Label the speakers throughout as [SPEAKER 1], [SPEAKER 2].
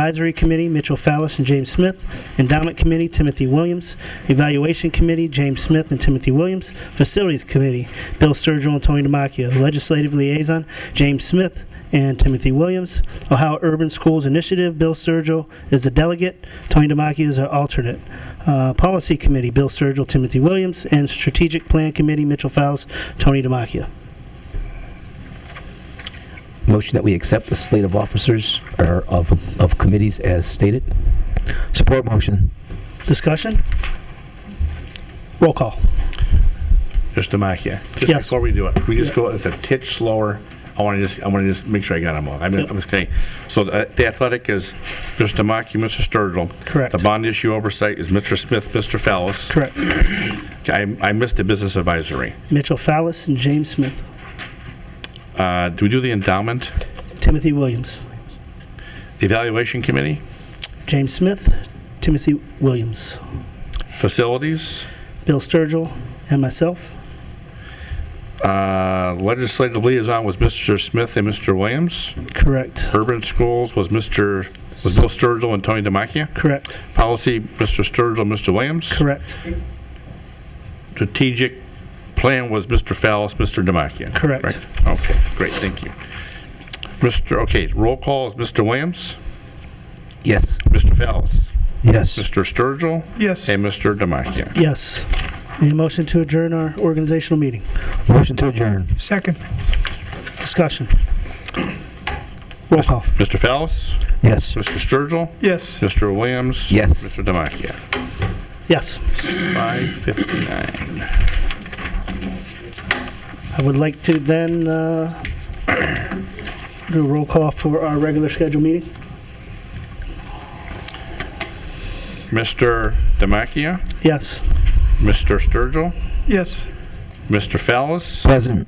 [SPEAKER 1] Advisory Committee, Mitchell Fallis and James Smith. Endowment Committee, Timothy Williams. Evaluation Committee, James Smith and Timothy Williams. Facilities Committee, Bill Sturgill and Tony Demakia. Legislative Liaison, James Smith and Timothy Williams. Ohio Urban Schools Initiative, Bill Sturgill is the delegate. Tony Demakia is our alternate. Uh, Policy Committee, Bill Sturgill, Timothy Williams. And Strategic Plan Committee, Mitchell Fallis, Tony Demakia.
[SPEAKER 2] Motion that we accept the slate of officers or of, of committees as stated.
[SPEAKER 3] Support motion.
[SPEAKER 1] Discussion? Roll call.
[SPEAKER 4] Just to mark you.
[SPEAKER 1] Yes.
[SPEAKER 4] Just before we do it, we just go, it's a titch slower. I want to just, I want to just make sure I got them all. I mean, I'm just kidding. So the the athletic is Mr. Tamaki, Mr. Sturgill.
[SPEAKER 1] Correct.
[SPEAKER 4] The bond issue oversight is Mr. Smith, Mr. Fallis.
[SPEAKER 1] Correct.
[SPEAKER 4] I, I missed the business advisory.
[SPEAKER 1] Mitchell Fallis and James Smith.
[SPEAKER 4] Uh, do we do the endowment
[SPEAKER 1] Timothy Williams.
[SPEAKER 4] evaluation committee,
[SPEAKER 1] James Smith, Timothy Williams,
[SPEAKER 4] facilities,
[SPEAKER 1] Bill Sturgill, and myself.
[SPEAKER 4] uh, legislative liaison was Mr. Smith and Mr. Williams.
[SPEAKER 1] Correct.
[SPEAKER 4] Urban schools was Mr., was Bill Sturgill and Tony Demakia.
[SPEAKER 1] Correct.
[SPEAKER 4] Policy, Mr. Sturgill, Mr. Williams.
[SPEAKER 1] Correct.
[SPEAKER 4] strategic plan was Mr. Fallis, Mr. Demakia?
[SPEAKER 1] Correct.
[SPEAKER 4] Okay, great, thank you. Mr., okay, roll call is Mr. Williams,
[SPEAKER 2] Yes.
[SPEAKER 4] Mr. Fallis,
[SPEAKER 3] Yes.
[SPEAKER 4] Mr. Sturgill,
[SPEAKER 5] Yes.
[SPEAKER 4] and Mr. Demakia.
[SPEAKER 1] Yes. Any motion to adjourn our organizational meeting?
[SPEAKER 3] Motion to adjourn.
[SPEAKER 5] Second.
[SPEAKER 1] Discussion. Roll call.
[SPEAKER 4] Mr. Fallis,
[SPEAKER 3] Yes.
[SPEAKER 4] Mr. Sturgill,
[SPEAKER 5] Yes.
[SPEAKER 4] Mr. Williams.
[SPEAKER 2] Yes.
[SPEAKER 4] Mr. Demakia.
[SPEAKER 1] Yes.
[SPEAKER 4] 5:59.
[SPEAKER 1] I would like to then uh, do a roll call for our regular scheduled meeting.
[SPEAKER 4] Mr. Demakia,
[SPEAKER 1] Yes.
[SPEAKER 4] Mr. Sturgill,
[SPEAKER 5] Yes.
[SPEAKER 4] Mr. Fallis,
[SPEAKER 3] Present.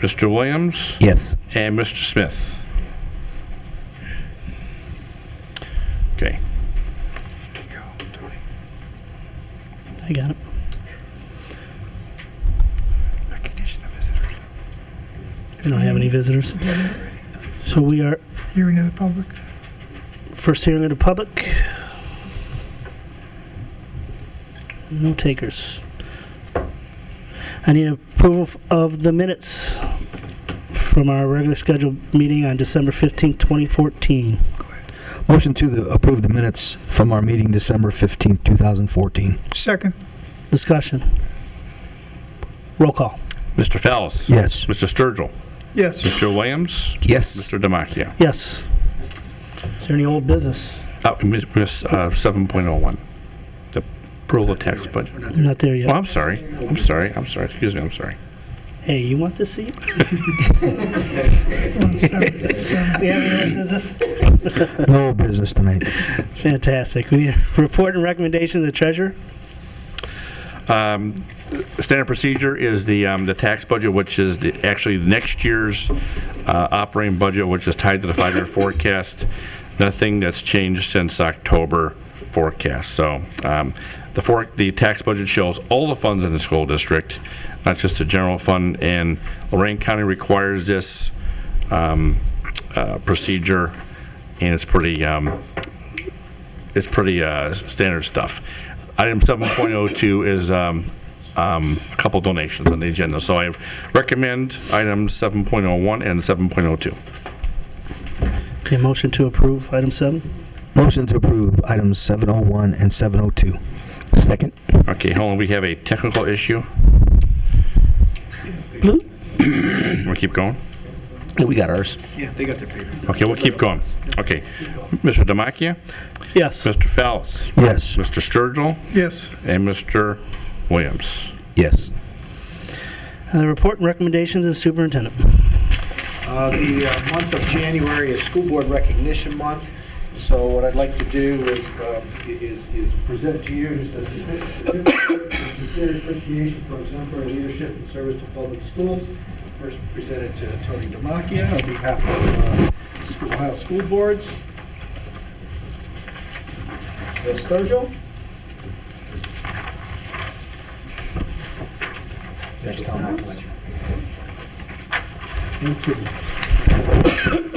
[SPEAKER 4] Mr. Williams,
[SPEAKER 2] Yes.
[SPEAKER 4] and Mr. Smith. Okay.
[SPEAKER 1] I got it. We don't have any visitors. So we are
[SPEAKER 5] Hearing of the public.
[SPEAKER 1] First hearing of the public. No takers. I need approval f- of the minutes from our regular scheduled meeting on December 15th, 2014.
[SPEAKER 3] Motion to the- approve the minutes from our meeting December 15th, 2014.
[SPEAKER 5] Second.
[SPEAKER 1] Discussion. Roll call.
[SPEAKER 4] Mr. Fallis.
[SPEAKER 3] Yes.
[SPEAKER 4] Mr. Sturgill.
[SPEAKER 5] Yes.
[SPEAKER 4] Mr. Williams.
[SPEAKER 2] Yes.
[SPEAKER 4] Mr. Demakia.
[SPEAKER 1] Yes. Is there any old business?
[SPEAKER 4] Uh, Miss, miss, uh, 7.01. The approval of tax budget.
[SPEAKER 1] Not there
[SPEAKER 4] Oh,
[SPEAKER 1] yet.
[SPEAKER 4] I'm sorry. I'm sorry. I'm sorry. Excuse me. I'm sorry.
[SPEAKER 1] Hey, you want this seat?
[SPEAKER 5] Seven. Seven.
[SPEAKER 1] We have any old business?
[SPEAKER 3] No business tonight.
[SPEAKER 1] Fantastic. We Report and recommendation to the treasurer?
[SPEAKER 4] Um, Standard procedure is the, um, the tax budget, which is the- actually next year's uh, operating budget, which is tied to the five-year forecast. Nothing that's changed since October forecast. So um, the for- the tax budget shows all the funds in the school district, not just the general fund. And Lorraine County requires this um, uh, procedure, and it's pretty, um, it's pretty uh, s- standard stuff. Item 7.02 is um, um, a couple donations on the agenda, so I recommend items 7.01 and 7.02.
[SPEAKER 1] Okay, motion to approve, item seven?
[SPEAKER 3] Motion to approve items 701 and 702.
[SPEAKER 2] Second.
[SPEAKER 4] Okay, hold on, we have a technical issue. We'll keep going?
[SPEAKER 2] We got ours.
[SPEAKER 4] Okay, we'll keep going. Okay. Mr. Demakia,
[SPEAKER 1] Yes.
[SPEAKER 4] Mr. Fallis,
[SPEAKER 3] Yes.
[SPEAKER 4] Mr. Sturgill,
[SPEAKER 5] Yes.
[SPEAKER 4] and Mr. Williams.
[SPEAKER 2] Yes.
[SPEAKER 1] Uh, The report and recommendations of the superintendent.
[SPEAKER 6] Uh, The uh, month of January is School Board Recognition Month, so what I'd like to do is, um, is is present to you just a certificate of sincere appreciation for exemplary leadership and service to public schools. First presented to Tony Demakia on behalf of uh, School- Ohio School Boards. Bill Sturgill. Next time. Thank you.